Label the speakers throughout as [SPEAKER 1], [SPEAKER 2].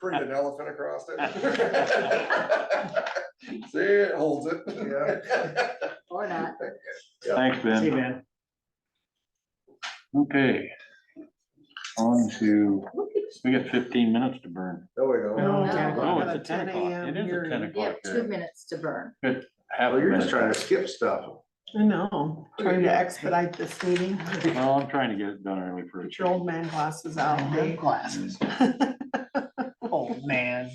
[SPEAKER 1] print an elephant across it. See, it holds it. Yeah.
[SPEAKER 2] Or not.
[SPEAKER 3] Thanks,
[SPEAKER 4] See,
[SPEAKER 3] Ben.
[SPEAKER 4] man.
[SPEAKER 3] Okay. On to, we got fifteen minutes to burn.
[SPEAKER 1] There we go.
[SPEAKER 4] No,
[SPEAKER 2] no.
[SPEAKER 3] Oh,
[SPEAKER 4] 10 o'clock.
[SPEAKER 3] it's a ten o'clock. It is a ten
[SPEAKER 2] We have
[SPEAKER 3] o'clock.
[SPEAKER 2] two minutes to burn.
[SPEAKER 1] Well, you're just trying to skip stuff.
[SPEAKER 5] I know, trying to expedite this meeting, get
[SPEAKER 3] Well, I'm trying to get it done early for
[SPEAKER 5] your old man glasses out,
[SPEAKER 4] Uh-huh.
[SPEAKER 5] Dave.
[SPEAKER 4] Glasses. Oh, man.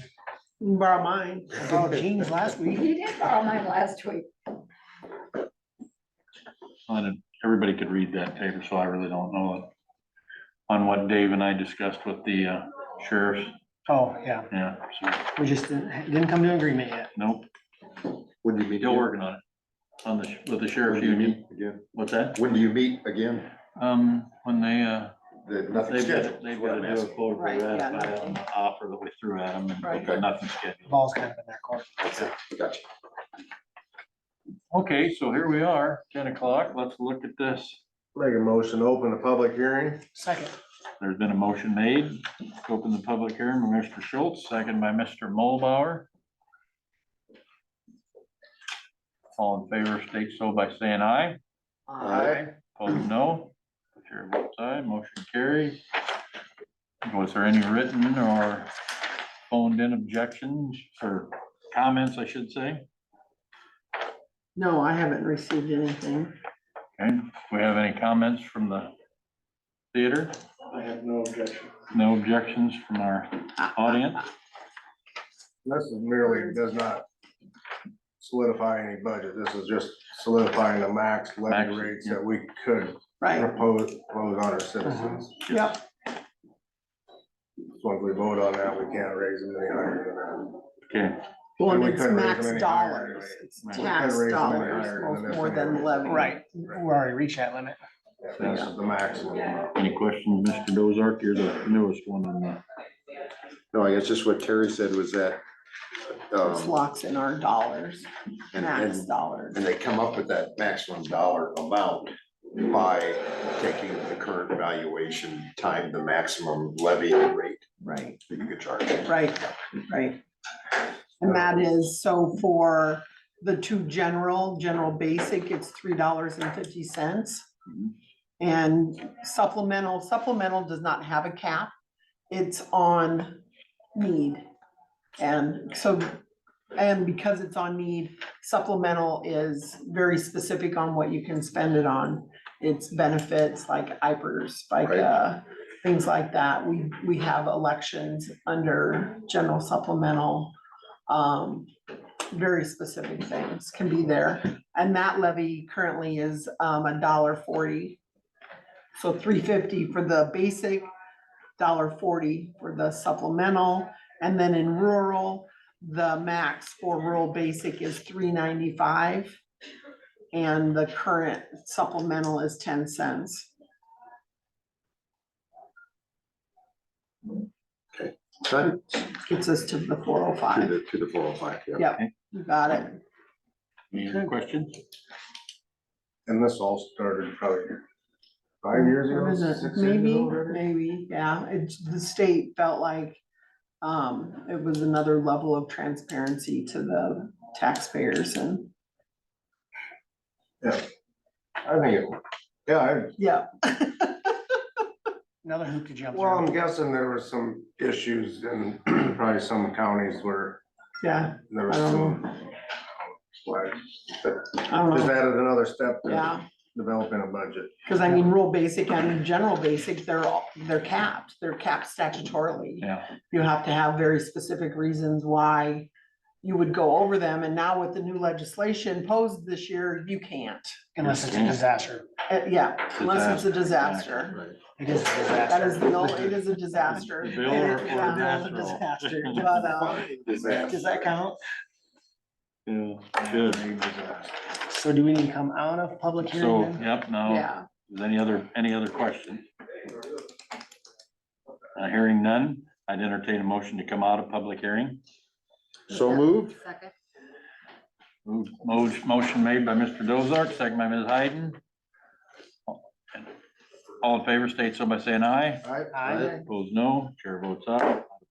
[SPEAKER 5] You can Borrow mine.
[SPEAKER 4] I bought jeans last week.
[SPEAKER 2] You did borrow mine last week.
[SPEAKER 3] on, everybody could read that paper, so I really don't know on what Dave and I discussed with the uh, sheriffs,
[SPEAKER 4] Oh, yeah.
[SPEAKER 3] yeah, so,
[SPEAKER 4] We just didn't, didn't come to an agreement yet.
[SPEAKER 3] nope,
[SPEAKER 1] When do you meet?
[SPEAKER 3] still
[SPEAKER 1] again?
[SPEAKER 3] working on it. On the, sh- with the
[SPEAKER 1] When
[SPEAKER 3] sheriff's
[SPEAKER 1] do you
[SPEAKER 3] union,
[SPEAKER 1] meet again?
[SPEAKER 3] what's that?
[SPEAKER 1] When do you meet again?
[SPEAKER 3] Um, when they, uh,
[SPEAKER 1] That nothing
[SPEAKER 3] they've
[SPEAKER 1] scheduled.
[SPEAKER 3] got, they've got to do a quote for
[SPEAKER 5] Right, yeah,
[SPEAKER 3] that, by,
[SPEAKER 5] nothing.
[SPEAKER 3] um, offer that we threw at them,
[SPEAKER 5] Right.
[SPEAKER 3] and nothing scheduled.
[SPEAKER 4] Ball's kind of in their court.
[SPEAKER 1] Gotcha.
[SPEAKER 3] Okay, so here we are, ten o'clock, let's look at this.
[SPEAKER 1] Make a motion, to open the public hearing.
[SPEAKER 4] Second,
[SPEAKER 3] There's been a motion made, to open the public hearing by Mr. Schultz, second by Mr. Mulbauer. All in favor, state so by saying aye.
[SPEAKER 1] Aye.
[SPEAKER 3] Opposed, no. The Chair votes aye, motion carries. Was there any written or phoned in objections or comments, I should say?
[SPEAKER 5] No, I haven't received anything.
[SPEAKER 3] Okay, do we have any comments from the theater?
[SPEAKER 6] I have no objection.
[SPEAKER 3] No objections from our audience?
[SPEAKER 1] This is merely, does not solidify any budget. This is just solidifying the max levy
[SPEAKER 3] Max,
[SPEAKER 1] rates
[SPEAKER 3] yeah.
[SPEAKER 1] that we could
[SPEAKER 5] Right,
[SPEAKER 1] propose, propose on our citizens.
[SPEAKER 5] Uh-huh. yep,
[SPEAKER 1] So if we vote on that, we can't raise them any higher than that.
[SPEAKER 3] Okay,
[SPEAKER 5] well,
[SPEAKER 1] And
[SPEAKER 5] and
[SPEAKER 1] we
[SPEAKER 5] it's
[SPEAKER 1] couldn't raise
[SPEAKER 5] max
[SPEAKER 1] them any higher
[SPEAKER 5] dollars,
[SPEAKER 1] anyway.
[SPEAKER 5] it's
[SPEAKER 3] We couldn't
[SPEAKER 5] tax
[SPEAKER 1] raise them any higher than
[SPEAKER 5] dollars,
[SPEAKER 1] this
[SPEAKER 5] most more than
[SPEAKER 1] anyway.
[SPEAKER 5] levy.
[SPEAKER 4] right, we already reached that limit.
[SPEAKER 1] Yeah, This is the maximum.
[SPEAKER 3] any questions, Mr. Dozark? You're the newest one on that.
[SPEAKER 7] No, I guess just what Terry said was that,
[SPEAKER 5] It's
[SPEAKER 7] um,
[SPEAKER 5] locks in our dollars,
[SPEAKER 7] and,
[SPEAKER 5] max
[SPEAKER 7] and,
[SPEAKER 5] dollars.
[SPEAKER 7] and they come up with that maximum dollar amount by taking the current valuation, time the maximum levy rate
[SPEAKER 5] Right,
[SPEAKER 7] that you could charge.
[SPEAKER 5] right, right. And that is, so for the two general, general basic, it's three dollars and fifty cents.
[SPEAKER 3] Mhm.
[SPEAKER 5] And supplemental, supplemental does not have a cap, it's on need. And so, and because it's on need, supplemental is very specific on what you can spend it on. It's benefits like IPERS, like,
[SPEAKER 7] Right.
[SPEAKER 5] uh, things like that. We, we have elections under general supplemental. Um, very specific things can be there. And that levy currently is, um, a dollar forty. So three fifty for the basic, dollar forty for the supplemental. And then in rural, the max for rural basic is three ninety-five. And the current supplemental is ten cents.
[SPEAKER 7] To
[SPEAKER 5] Gets us to the four oh five.
[SPEAKER 7] the, to the four oh five, yeah.
[SPEAKER 5] You got it.
[SPEAKER 3] Any other questions?
[SPEAKER 1] And this all started probably five years
[SPEAKER 5] Or
[SPEAKER 1] ago,
[SPEAKER 5] is it-
[SPEAKER 1] six years
[SPEAKER 5] Maybe,
[SPEAKER 1] ago. already?
[SPEAKER 5] maybe, yeah, it's, the state felt like, um, it was another level of transparency to the taxpayers and,
[SPEAKER 1] I think it, yeah, I,
[SPEAKER 5] yeah.
[SPEAKER 4] another hoop to jump
[SPEAKER 1] well, I'm
[SPEAKER 4] through.
[SPEAKER 1] guessing there were some issues in probably some counties where
[SPEAKER 5] Yeah,
[SPEAKER 1] there was
[SPEAKER 5] I don't
[SPEAKER 1] some.
[SPEAKER 4] Um,
[SPEAKER 1] Like,
[SPEAKER 5] I don't
[SPEAKER 1] Just
[SPEAKER 5] know,
[SPEAKER 1] added another step to
[SPEAKER 5] yeah,
[SPEAKER 1] developing a budget.
[SPEAKER 5] cause I mean, rural basic and general basic, they're all, they're capped, they're capped statutorily.
[SPEAKER 3] Yeah.
[SPEAKER 5] You have to have very specific reasons why you would go over them, and now with the new legislation posed this year, you can't.
[SPEAKER 4] Unless it's a disaster.
[SPEAKER 5] Uh, yeah, unless it's a disaster.
[SPEAKER 4] It is a
[SPEAKER 5] That is,
[SPEAKER 4] disaster.
[SPEAKER 5] no, it is a disaster.
[SPEAKER 3] Bill
[SPEAKER 5] It
[SPEAKER 3] or-
[SPEAKER 5] is
[SPEAKER 3] or disaster?
[SPEAKER 5] a disaster, but, uh,
[SPEAKER 7] Disaster.
[SPEAKER 4] Does that count?
[SPEAKER 3] Yeah, good.
[SPEAKER 4] So do we need to come out of public hearing
[SPEAKER 3] So,
[SPEAKER 4] then?
[SPEAKER 3] yep, now,
[SPEAKER 5] yeah,
[SPEAKER 3] is any other, any other question? Uh, Hearing none, I'd entertain a motion to come out of public hearing.
[SPEAKER 7] So moved?
[SPEAKER 2] Second.
[SPEAKER 3] Move- mo- Motion made by Mr. Dozark, second by Ms. Hayden. All in favor, state so by saying aye.
[SPEAKER 1] All right,
[SPEAKER 4] Aye.
[SPEAKER 3] Opposed, no. Chair votes aye.